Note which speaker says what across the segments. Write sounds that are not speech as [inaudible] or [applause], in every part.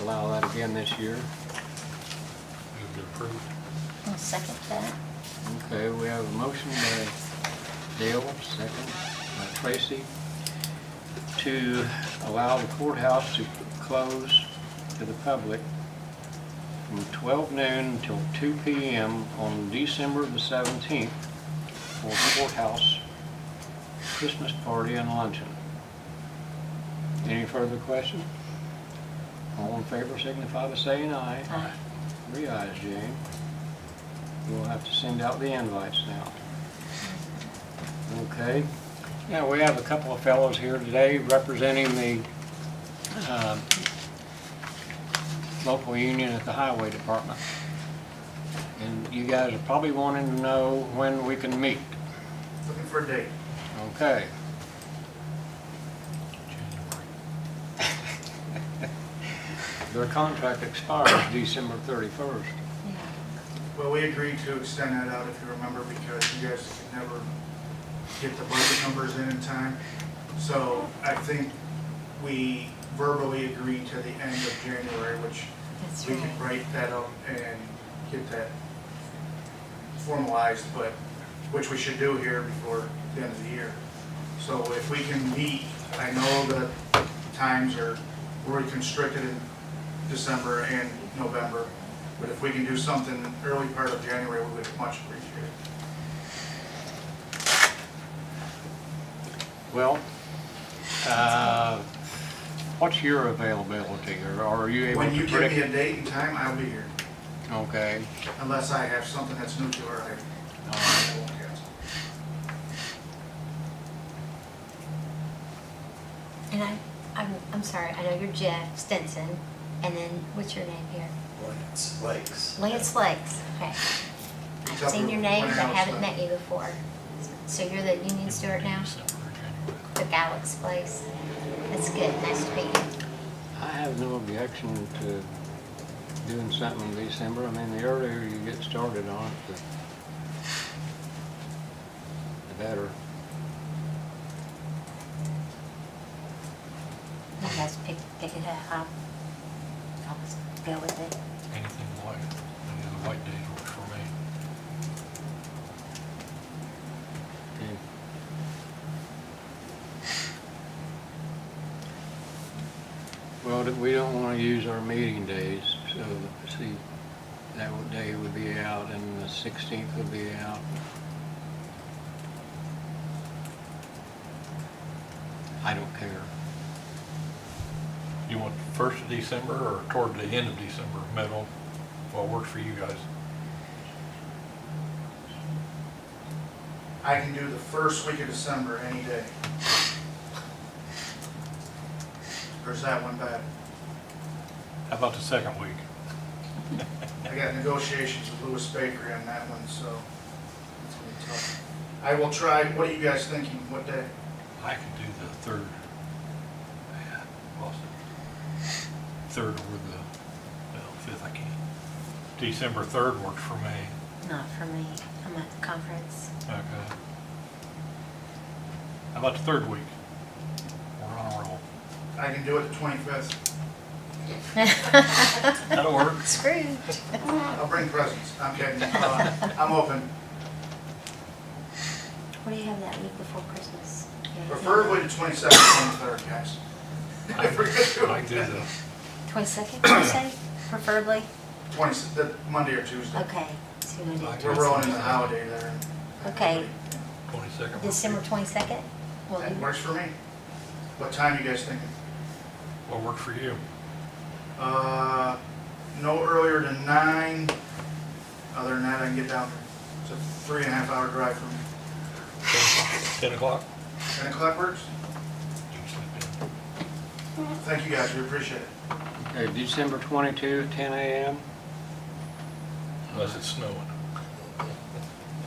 Speaker 1: again this year.
Speaker 2: Move to approve.
Speaker 3: I'll second that.
Speaker 1: Okay, we have a motion by Dale, second by Tracy, to allow the courthouse to close to the public from 12 noon till 2 PM on December the 17th for courthouse Christmas party and luncheon. Any further question? All in favor signify by saying aye.
Speaker 3: Aye.
Speaker 1: Three ayes, Jane. We'll have to send out the invites now. Okay. Now, we have a couple of fellows here today representing the um, local union at the Highway Department. And you guys are probably wanting to know when we can meet.
Speaker 4: Looking for a date.
Speaker 1: Okay. Their contract expires December 31st.
Speaker 4: Well, we agreed to extend that out, if you remember, because you guys could never get the budget numbers in in time. So I think we verbally agreed to the end of January, which
Speaker 3: That's
Speaker 4: we can
Speaker 3: right.
Speaker 4: write that up and get that formalized, but, which we should do here before the end of the year. So if we can meet, I know the times are really constricted in December and November, but if we can do something early part of January, we would much appreciate it.
Speaker 1: Well, uh, what's your availability, or are you able to
Speaker 4: When you
Speaker 1: predict?
Speaker 4: give me a date and time, I'll be here,
Speaker 1: Okay,
Speaker 4: unless I have something that's new to our,
Speaker 1: all right.
Speaker 4: I won't cancel.
Speaker 3: And I, I'm, I'm sorry, I know you're Jeff Stinson, and then what's your name here?
Speaker 5: Lance Lakes.
Speaker 3: Lance Lakes, okay. I've seen your name, but I haven't met you before. So you're the union steward now, the Galax place. That's good, nice to meet you.
Speaker 1: I have no objection to doing something in December. I mean, the earlier you get started on it, the the better.
Speaker 3: You guys pick, pick it up. I'll just go with it.
Speaker 2: Anything white, any of the white days works for me.
Speaker 1: Okay. Well, th- we don't want to use our meeting days, so, see, that would- day would be out, and the 16th would be out. I don't care.
Speaker 2: You want first of December or toward the end of December, middle, what works for you guys?
Speaker 4: I can do the first week of December any day. Or is that one bad?
Speaker 2: How about the second week?
Speaker 4: I got negotiations with Lewis Bakery on that one, so it's gonna be tough. I will try, what are you guys thinking, what day?
Speaker 2: I can do the third. Yeah, lost it. Third or the, well, fifth I can. December third works for me.
Speaker 3: Not for me, I'm at the conference.
Speaker 2: Okay. How about the third week? We're on a roll.
Speaker 4: I can do it the twenty-fifth.
Speaker 2: That'll work.
Speaker 3: [laughs] Screwed.
Speaker 4: I'll bring presents, I'm kidding, Uh, I'm open.
Speaker 3: What do you have that week before Christmas?
Speaker 4: Preferably the twenty-second, twenty-third, guys.
Speaker 2: I
Speaker 4: If we're
Speaker 2: I
Speaker 4: gonna
Speaker 2: can
Speaker 4: do
Speaker 2: do
Speaker 4: it,
Speaker 2: the
Speaker 3: Twenty-second, you say, preferably?
Speaker 4: twenty, the Monday or Tuesday.
Speaker 3: Okay, so we're gonna do
Speaker 4: We're rolling in the holiday there.
Speaker 3: Okay.
Speaker 2: twenty-second.
Speaker 3: December twenty-second? Well,
Speaker 4: That
Speaker 3: you-
Speaker 4: works for me. What time you guys thinking?
Speaker 2: What works for you?
Speaker 4: Uh, no earlier than nine. Other than that, I can get down there. It's a three and a half hour drive from
Speaker 2: Ten o'clock?
Speaker 4: ten o'clock works.
Speaker 2: You can sleep
Speaker 4: Thank you guys, we appreciate it.
Speaker 1: Okay, December 22, 10 a.m.?
Speaker 2: in, unless it's snowing.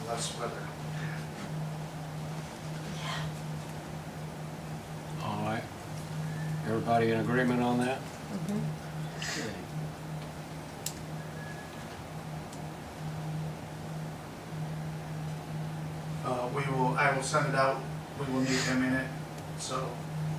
Speaker 4: Less weather.
Speaker 1: All right. Everybody in agreement on that?
Speaker 3: Mhm.
Speaker 1: Okay.
Speaker 4: Uh, we will, I will send it out. We will need him in it, so